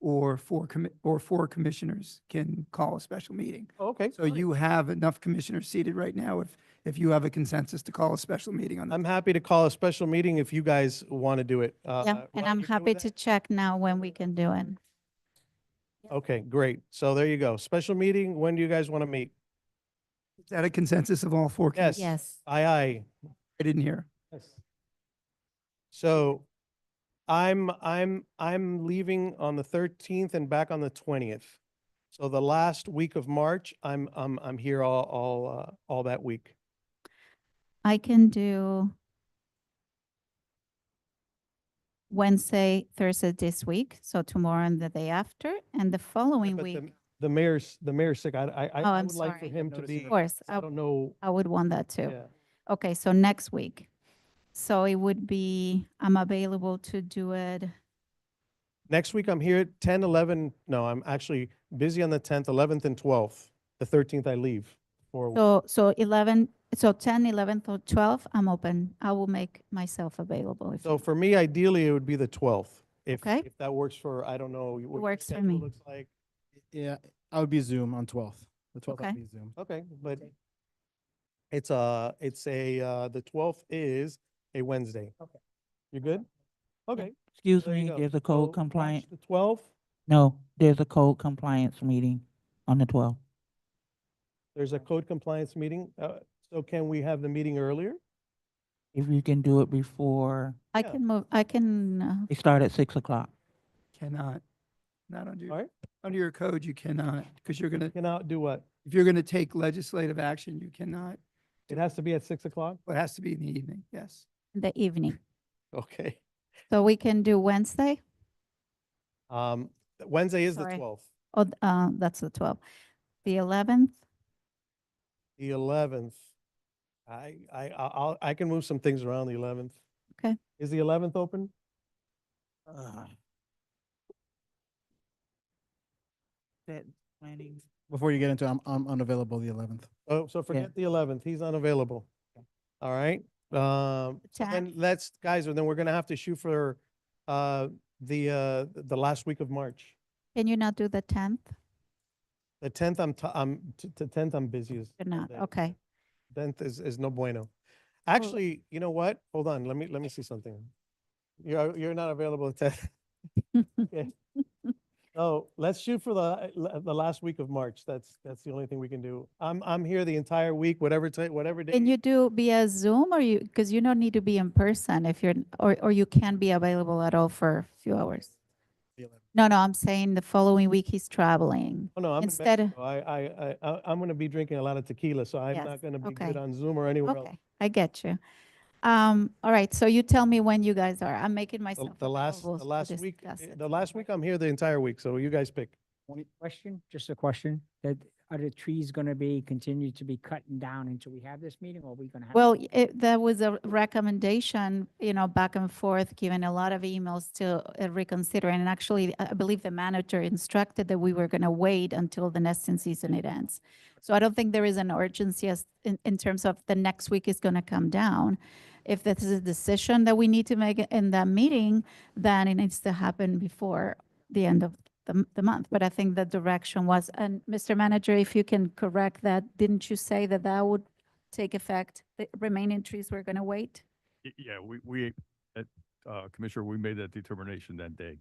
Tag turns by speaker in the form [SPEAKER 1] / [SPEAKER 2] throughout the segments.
[SPEAKER 1] or four commi, or four commissioners can call a special meeting.
[SPEAKER 2] Okay.
[SPEAKER 1] So you have enough commissioners seated right now if, if you have a consensus to call a special meeting on that.
[SPEAKER 2] I'm happy to call a special meeting if you guys want to do it. uh,
[SPEAKER 3] Yeah, and I'm happy to check now when we can do it.
[SPEAKER 2] Okay, great. So there you go. Special meeting, when do you guys want to meet?
[SPEAKER 1] Is that a consensus of all four? commis-
[SPEAKER 2] Yes.
[SPEAKER 3] Yes.
[SPEAKER 2] Aye, aye.
[SPEAKER 1] I didn't hear.
[SPEAKER 2] So I'm, I'm, I'm leaving on the thirteenth and back on the twentieth. So the last week of March, I'm, I'm, I'm here all, all, uh, all that week.
[SPEAKER 3] I can do Wednesday, Thursday this week, so tomorrow and the day after, and the following
[SPEAKER 2] But
[SPEAKER 3] week,
[SPEAKER 2] the- The mayor's, the mayor's sick. I, I, I-
[SPEAKER 3] Oh,
[SPEAKER 2] I
[SPEAKER 3] I'm
[SPEAKER 2] would like for
[SPEAKER 3] sorry. oh.
[SPEAKER 2] him to
[SPEAKER 3] of
[SPEAKER 2] be,
[SPEAKER 3] course,
[SPEAKER 2] I
[SPEAKER 3] I,
[SPEAKER 2] don't know.
[SPEAKER 3] I would want that too.
[SPEAKER 2] Yeah.
[SPEAKER 3] Okay, so next week. So it would be, I'm available to do it.
[SPEAKER 2] Next week, I'm here at 10, 11, no, I'm actually busy on the 10th, 11th, and 12th. The 13th, I leave for, a week.
[SPEAKER 3] So, so 11, so 10, 11, or 12, I'm open. I will make myself available. if
[SPEAKER 2] so for me, ideally, it would be the 12th. If,
[SPEAKER 3] Okay.
[SPEAKER 2] if that works for, I don't know. what your
[SPEAKER 3] works for
[SPEAKER 2] schedule
[SPEAKER 3] me.
[SPEAKER 2] Looks like,
[SPEAKER 4] Yeah, I would be Zoom on twelfth. The twelfth
[SPEAKER 3] Okay.
[SPEAKER 4] I'd be Zoom.
[SPEAKER 2] okay, but it's a, it's a, uh, the 12th is a Wednesday. Okay. You good? Okay.
[SPEAKER 5] Excuse
[SPEAKER 2] there you
[SPEAKER 5] me,
[SPEAKER 2] go.
[SPEAKER 5] there's a
[SPEAKER 2] So
[SPEAKER 5] code
[SPEAKER 2] March
[SPEAKER 5] compliant,
[SPEAKER 2] The 12th,
[SPEAKER 5] no, there's a code compliance meeting on the twelfth.
[SPEAKER 2] there's a code compliance meeting. Uh, So can we have the meeting earlier?
[SPEAKER 5] If you can do it before,
[SPEAKER 3] I
[SPEAKER 2] yeah.
[SPEAKER 3] can move, I can, uh,
[SPEAKER 5] they start at six o'clock.
[SPEAKER 1] Cannot. Not under, your-
[SPEAKER 2] Alright.
[SPEAKER 1] under your code, you cannot, because you're gonna,
[SPEAKER 2] Can I do what?
[SPEAKER 1] if you're gonna take legislative action, you cannot.
[SPEAKER 2] It has to be at 6 o'clock?
[SPEAKER 1] It has to be in the evening, yes.
[SPEAKER 3] in the evening.
[SPEAKER 2] Okay.
[SPEAKER 3] So we can do Wednesday?
[SPEAKER 2] Um, Wednesday is the
[SPEAKER 3] Sorry.
[SPEAKER 2] 12th.
[SPEAKER 3] Oh, th- uh, that's the 12th. The 11th,
[SPEAKER 2] The eleventh. I, I, I- I'll, I can move some things around the eleventh.
[SPEAKER 3] Okay.
[SPEAKER 2] Is the eleventh open? Uh.
[SPEAKER 5] Ugh. That planning,
[SPEAKER 4] Before you get into, it, I'm, I'm unavailable the eleventh.
[SPEAKER 2] Oh, so forget the eleventh. He's unavailable. All right. Um, so then
[SPEAKER 3] 10th,
[SPEAKER 2] let's, guys, then we're gonna have to shoot for, uh, the, uh, the last week of March.
[SPEAKER 3] can you not do the 10th?
[SPEAKER 2] The tenth, I'm, t- I'm, t- the tenth, I'm busy as.
[SPEAKER 3] You're not,
[SPEAKER 2] that-
[SPEAKER 3] okay.
[SPEAKER 2] Tenth is, is no bueno. Actually, you know what? Hold on, let me, let me see something. You're, you're not available at ten. Okay. Oh, let's shoot for the, uh, la- the last week of March. That's, that's the only thing we can do. I'm, I'm here the entire week, whatever, ti- whatever day.
[SPEAKER 3] Can you do via Zoom or you, because you don't need to be in person if you're, or, or you can be available at all for a few hours? No, no, I'm saying the following week he's traveling.
[SPEAKER 2] Oh, no, I'm in
[SPEAKER 3] instead of-
[SPEAKER 2] Mexico. I, I, I, I- I'm gonna be drinking a lot of tequila, so I'm
[SPEAKER 3] Yes,
[SPEAKER 2] not gonna be good
[SPEAKER 3] okay.
[SPEAKER 2] on Zoom or anywhere else.
[SPEAKER 3] Okay, I get you. Um, all right, so you tell me when you guys are. I'm making
[SPEAKER 2] The-
[SPEAKER 3] myself
[SPEAKER 2] The last, the
[SPEAKER 3] available to
[SPEAKER 2] last week,
[SPEAKER 3] discuss
[SPEAKER 2] eh,
[SPEAKER 3] it.
[SPEAKER 2] the last week, I'm here the entire week, so you guys pick.
[SPEAKER 6] Only question, just a question, that are the trees gonna be, continue to be cut down until we have this meeting, or are we gonna have?
[SPEAKER 3] Well, y- it, that was a recommendation, you know, back and forth, given a lot of emails to uh, reconsider. And actually, I I believe the manager instructed that we were going to wait until the nesting season it ends. So I don't think there is an urgency as, in, in terms of the next week is going to come down. If this is a decision that we need to make in that meeting, then it needs to happen before the end of the, m- the month. But I think the direction was, and Mr. Manager, if you can correct that, didn't you say that that would take effect, the remaining trees we're going to wait?
[SPEAKER 7] Y- Yeah, we, we, at, uh, Commissioner, we made that determination that day.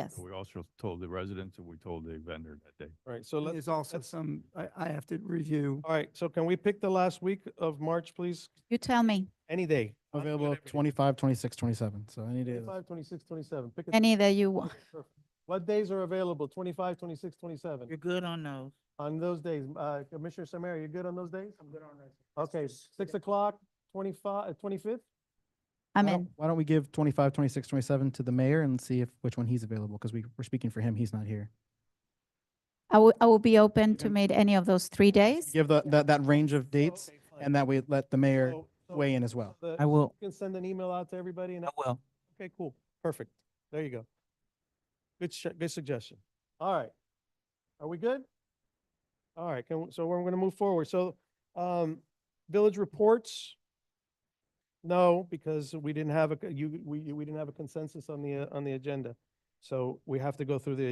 [SPEAKER 3] Yes.
[SPEAKER 7] We also told the residents and we told the vendor that day.
[SPEAKER 2] All right, so
[SPEAKER 1] And
[SPEAKER 2] let's,
[SPEAKER 1] There's also
[SPEAKER 2] let's-
[SPEAKER 1] some, I, I have to review.
[SPEAKER 2] all right, so can we pick the last week of March, please?
[SPEAKER 3] You tell me,
[SPEAKER 2] Any day. I'm good
[SPEAKER 4] Available
[SPEAKER 2] every day.
[SPEAKER 4] 25, 26, 27. so any day. of the-
[SPEAKER 2] 25, 26, 27. Pick a
[SPEAKER 3] any that you want.
[SPEAKER 2] Okay, perfect. What days are available? 25, 26, 27?
[SPEAKER 5] you're good on those.
[SPEAKER 2] On those days, uh, Commissioner Samara, you good on those days? I'm good on those. Okay, 6 o'clock, 25, uh, 25th?
[SPEAKER 3] I'm
[SPEAKER 4] Why don't-
[SPEAKER 3] in.
[SPEAKER 4] Why don't we give 25, 26, 27 to the mayor and see if, which one he's available, because we, we're speaking for him, he's not here.
[SPEAKER 3] I will, I will be open to
[SPEAKER 4] can-
[SPEAKER 3] meet any of those three days.
[SPEAKER 4] Give the, that, that range of dates,
[SPEAKER 2] Okay, fine.
[SPEAKER 4] and that we let the mayor
[SPEAKER 2] So- so-
[SPEAKER 4] weigh in as well.
[SPEAKER 2] so the-
[SPEAKER 5] I will,
[SPEAKER 2] You can send an email out to everybody and,
[SPEAKER 5] I will.
[SPEAKER 2] okay, cool, perfect. There you go. Good, sh- good suggestion. All right. Are we good? All right, can, so we're gonna move forward. So, um, village reports? No, because we didn't have a, c- you, we, we didn't have a consensus on the, uh, on the agenda. So we have to go through the